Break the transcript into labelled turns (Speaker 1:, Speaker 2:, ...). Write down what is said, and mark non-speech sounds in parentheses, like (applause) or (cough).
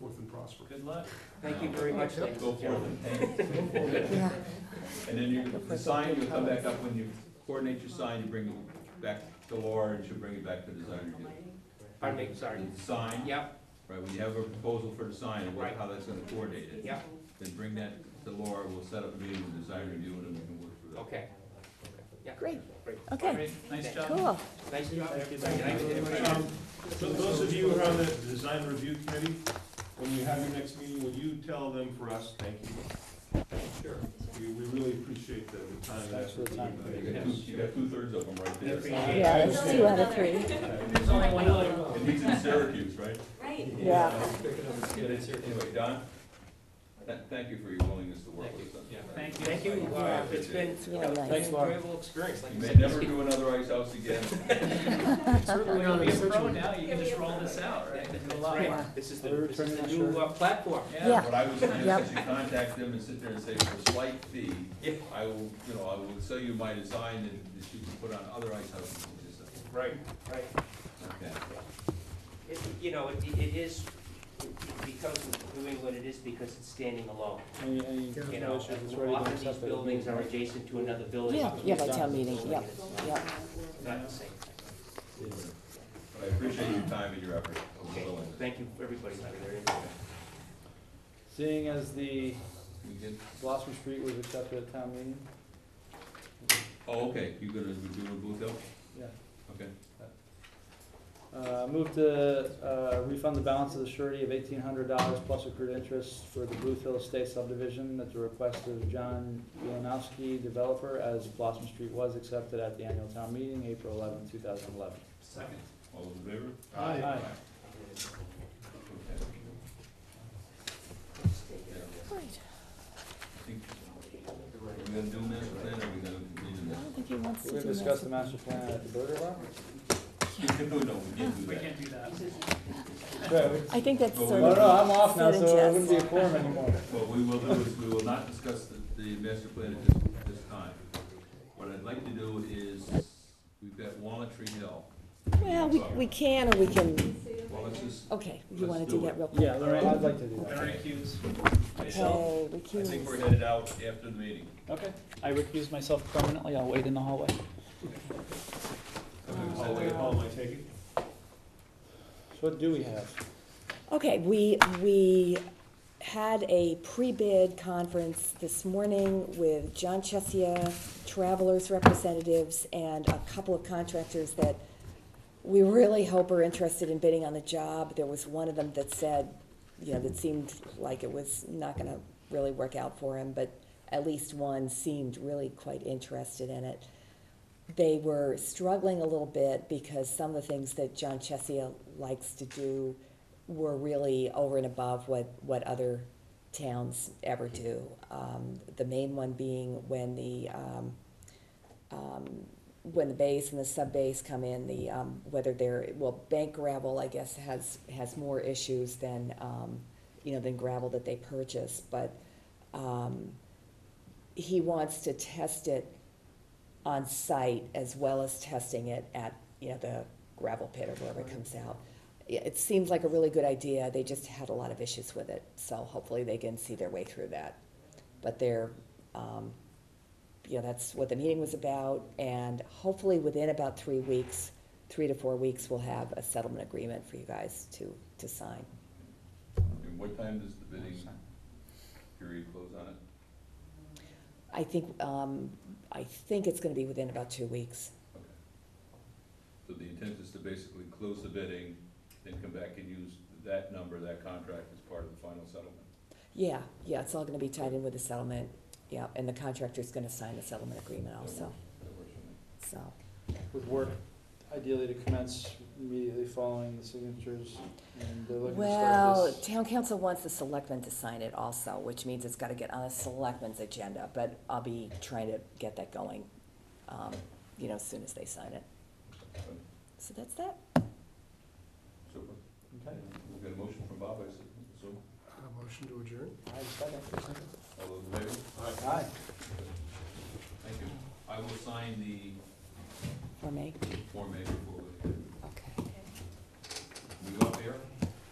Speaker 1: forth and prosper.
Speaker 2: Good luck.
Speaker 3: Thank you very much, ladies
Speaker 2: Go
Speaker 3: and
Speaker 2: forth and thank you.
Speaker 4: Yeah,
Speaker 2: And then you, the sign, you'll come back up when you coordinate your sign, you bring it back to Laura and she'll bring it back to the designer.
Speaker 3: Pardon me, sorry.
Speaker 2: The sign.
Speaker 3: Yep,
Speaker 2: Right, when you have a proposal for the sign, and what,
Speaker 3: Right.
Speaker 2: how that's gonna coordinate it.
Speaker 3: yep,
Speaker 2: Then bring that to Laura, we'll set up a meeting with the design review and then we can work through that.
Speaker 3: okay. Yeah.
Speaker 4: Great.
Speaker 3: Great.
Speaker 4: okay,
Speaker 2: Great, nice job.
Speaker 4: cool.
Speaker 3: Nice job, everybody. Nice to meet you.
Speaker 5: Um, For those of you who are on the design review committee, when you have your next meeting, will you tell them for us, thank you? Sure. We, we really appreciate the the time. That's the time.
Speaker 2: You got two, you got two-thirds of them right there.
Speaker 3: Appreciate
Speaker 4: Yeah, that's two out of three.
Speaker 3: There's only one other.
Speaker 2: And he's in Syracuse, right?
Speaker 6: Right.
Speaker 4: Yeah.
Speaker 2: Anyway, Don, th- thank you for your willingness to work with us. on this.
Speaker 3: Thank you. Thank you. Uh, It's been,
Speaker 4: It's
Speaker 3: you
Speaker 4: really
Speaker 3: know, an
Speaker 4: nice.
Speaker 3: enjoyable experience. Like
Speaker 2: You
Speaker 3: I
Speaker 2: may
Speaker 3: said,
Speaker 2: never do another ice house again.
Speaker 3: Certainly not
Speaker 7: You're a
Speaker 3: this
Speaker 7: pro now, you
Speaker 6: Yeah,
Speaker 7: can
Speaker 6: we
Speaker 7: just
Speaker 6: have
Speaker 7: roll
Speaker 6: fun.
Speaker 7: this out, right?
Speaker 3: That's
Speaker 7: July.
Speaker 3: right. This is the, this is the new uh, platform.
Speaker 4: Yeah.
Speaker 2: What I was saying
Speaker 4: Yep.
Speaker 2: is you contact them and sit there and say, for a slight fee, I will, you know, I will sell you my design and that you can put on other ice houses. in this area."
Speaker 5: Right.
Speaker 3: Right.
Speaker 2: Okay.
Speaker 3: It- You know, it, it is, because of New England, it is because it's standing alone. You know, often these buildings are adjacent to another building.
Speaker 4: Yeah, yeah, by town meeting,
Speaker 3: Building,
Speaker 4: yeah,
Speaker 3: it's
Speaker 4: yeah.
Speaker 3: Not the same.
Speaker 2: But I appreciate your time and your effort. and
Speaker 3: Okay,
Speaker 2: willingness.
Speaker 3: thank you, everybody, for their input.
Speaker 7: Seeing as the
Speaker 2: We did-
Speaker 7: Blossom Street was accepted at town meeting,
Speaker 2: Oh, okay, you gonna do a Blue Hill?
Speaker 7: yeah.
Speaker 2: Okay.
Speaker 7: Uh, move to, uh, refund the balance of the surety of eighteen hundred dollars plus accrued interest for the Blue Hill Estate subdivision at the request of John Yanowski, developer, as Blossom Street was accepted at the annual town meeting, April eleventh, two thousand eleven.
Speaker 2: Second. All those in favor?
Speaker 5: Aye.
Speaker 7: Aye.
Speaker 2: Okay. Yeah,
Speaker 4: Great.
Speaker 2: I think- Are we gonna do master plan or are we gonna continue
Speaker 4: I
Speaker 2: this?
Speaker 4: don't think he wants to
Speaker 7: We're
Speaker 4: do
Speaker 7: gonna
Speaker 4: this.
Speaker 7: discuss the master plan at the burger bar?
Speaker 2: (laughs) No, no, we can't do
Speaker 7: We
Speaker 2: that.
Speaker 7: can't do that.
Speaker 4: I think that's
Speaker 2: Well,
Speaker 4: sort
Speaker 7: No,
Speaker 4: of.
Speaker 7: no, I'm off now,
Speaker 4: sort of
Speaker 7: so it wouldn't be a
Speaker 4: jest.
Speaker 7: quorum anymore.
Speaker 2: What we will do is, we will not discuss the, the master plan at this, this time. What I'd like to do is, we've got Walnut Tree Hill.
Speaker 4: Well, we, we can, or we can,
Speaker 2: Well, let's just,
Speaker 4: okay, you
Speaker 2: Let's
Speaker 4: wanna
Speaker 2: do
Speaker 4: do that
Speaker 2: it.
Speaker 4: real quick?
Speaker 7: Yeah, I'd like to do that.
Speaker 5: recuse.
Speaker 2: I
Speaker 4: Okay, we can.
Speaker 2: think we're headed out after the meeting.
Speaker 7: Okay, I recuse myself permanently, I'll wait in the hallway.
Speaker 5: All the way home, I take it?
Speaker 7: So what do we have?
Speaker 4: Okay, we, we had a pre-bid conference this morning with John Chesia, Travelers representatives, and a couple of contractors that we really hope are interested in bidding on the job. There was one of them that said, you know, that seemed like it was not gonna really work out for him, but at least one seemed really quite interested in it they were struggling a little bit because some of the things that John Chesia likes to do were really over and above what, what other towns ever do. Um, the main one being when the, um, um, when the base and the sub base come in, the, um, whether they're, well, bank gravel, I guess, has, has more issues than, um, you know, than gravel that they purchase, but, um, he wants to test it on site as well as testing it at, you know, the gravel pit or wherever it comes out. It it seems like a really good idea, they just had a lot of issues with it, so hopefully they can see their way through that. But they're, um, you know, that's what the meeting was about, and hopefully within about three weeks, three to four weeks, we'll have a settlement agreement for you guys to, to sign.
Speaker 2: And what time does the bidding period close on it?
Speaker 4: I think, um, I think it's gonna be within about two weeks.
Speaker 2: Okay. So the intent is to basically close the bidding, then come back and use that number, that contract as part of the final settlement.
Speaker 4: Yeah, yeah, it's all gonna be tied in with the settlement, yeah, and the contractor's gonna sign the settlement agreement also,
Speaker 2: That works for me.
Speaker 4: so.
Speaker 7: With work ideally to commence immediately following the signatures, and uh, they're looking to start
Speaker 4: Well,
Speaker 7: this.
Speaker 4: town council wants the selectmen to sign it also, which means it's gotta get on the selectmen's agenda, but I'll be trying to get that going, um, you know, as soon as they sign it. So that's that.
Speaker 2: Super.
Speaker 7: Okay,
Speaker 2: We've got a motion from Bob, I assume.
Speaker 1: A motion to adjourn?
Speaker 7: I have a second.
Speaker 2: All those in favor?
Speaker 7: Aye.
Speaker 2: Thank you. I will sign the
Speaker 4: For me.
Speaker 2: Form A before